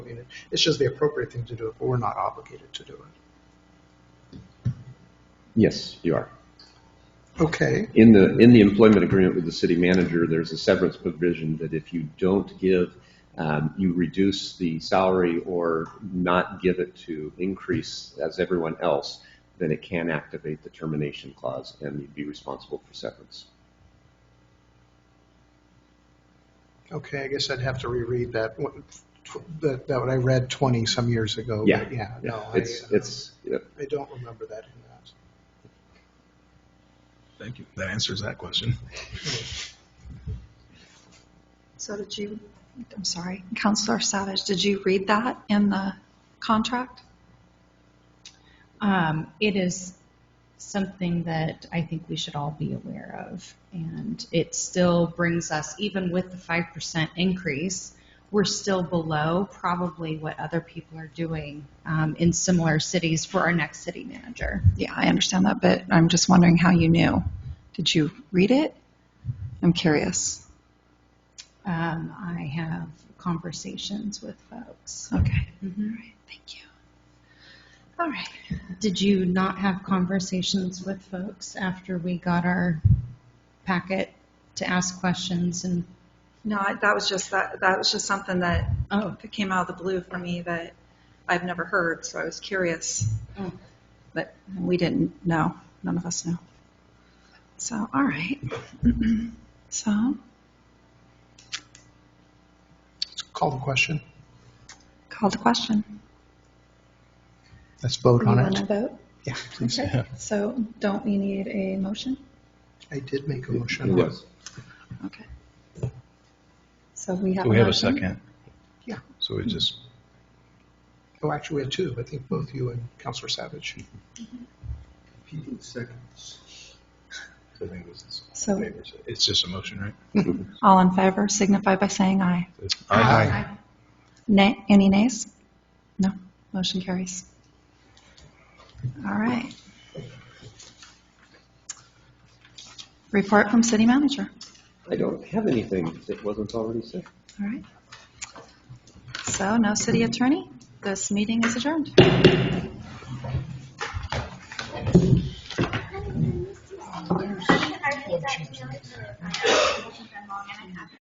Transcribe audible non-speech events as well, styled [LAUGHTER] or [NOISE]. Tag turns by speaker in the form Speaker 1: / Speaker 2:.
Speaker 1: obligated. It's just the appropriate thing to do, but we're not obligated to do it.
Speaker 2: Yes, you are.
Speaker 1: Okay,
Speaker 2: In the, in the employment agreement with the city manager, there's a severance provision that if you don't give, um, you reduce the salary or not give it to increase as everyone else, then it can activate the termination clause and you'd be responsible for severance.
Speaker 1: okay, I guess I'd have to reread that, one- tw- that, that what I read 20 some years ago.
Speaker 2: Yeah,
Speaker 1: but Yeah, no, I, uh,
Speaker 2: It's, it's, yeah,
Speaker 1: I don't remember that in that.
Speaker 3: Thank you. That answers that question.
Speaker 4: So did you, I'm sorry, Counselor Savage, did you read that in the contract?
Speaker 5: Um, it is something that I think we should all be aware of. And it still brings us, even with the 5% increase, we're still below probably what other people are doing um, in similar cities for our next city manager.
Speaker 4: Yeah, I understand that, but I'm just wondering how you knew. Did you read it? I'm curious.
Speaker 5: Um, I have conversations with folks.
Speaker 4: Okay,
Speaker 5: Mhm.
Speaker 4: thank you. All right.
Speaker 5: Did you not have conversations with folks after we got our packet to ask questions and
Speaker 4: No, I- that was just, that, that was just something that
Speaker 5: oh
Speaker 4: it came out of the blue for me that I've never heard, so I was curious.
Speaker 5: Oh.
Speaker 4: But we didn't know. None of us knew. So, all right. [CLEARS THROAT] so,
Speaker 1: Let's Call the question.
Speaker 4: call the question.
Speaker 1: Let's vote
Speaker 4: You
Speaker 1: on
Speaker 4: want
Speaker 1: it.
Speaker 4: to vote?
Speaker 1: Yeah, please.
Speaker 4: Okay. So, don't we need a motion?
Speaker 1: I did make a
Speaker 2: it
Speaker 1: motion.
Speaker 2: was.
Speaker 4: Okay. So we have.
Speaker 3: Do we have a
Speaker 4: motion.
Speaker 3: second?
Speaker 1: Yeah.
Speaker 3: So we just,
Speaker 1: Oh, actually, we had two. I think both you and Counselor Savage.
Speaker 3: seconds. I think it was this.
Speaker 4: So,
Speaker 3: It's just a motion, right?
Speaker 4: all in favor signify by saying aye.
Speaker 3: It's-
Speaker 4: Nay, any nays? No, motion carries. All right. Report from city manager.
Speaker 2: I don't have anything that wasn't already said.
Speaker 4: All right. So no city attorney. This meeting is adjourned.
Speaker 6: I get that email. I have a question from mom and I have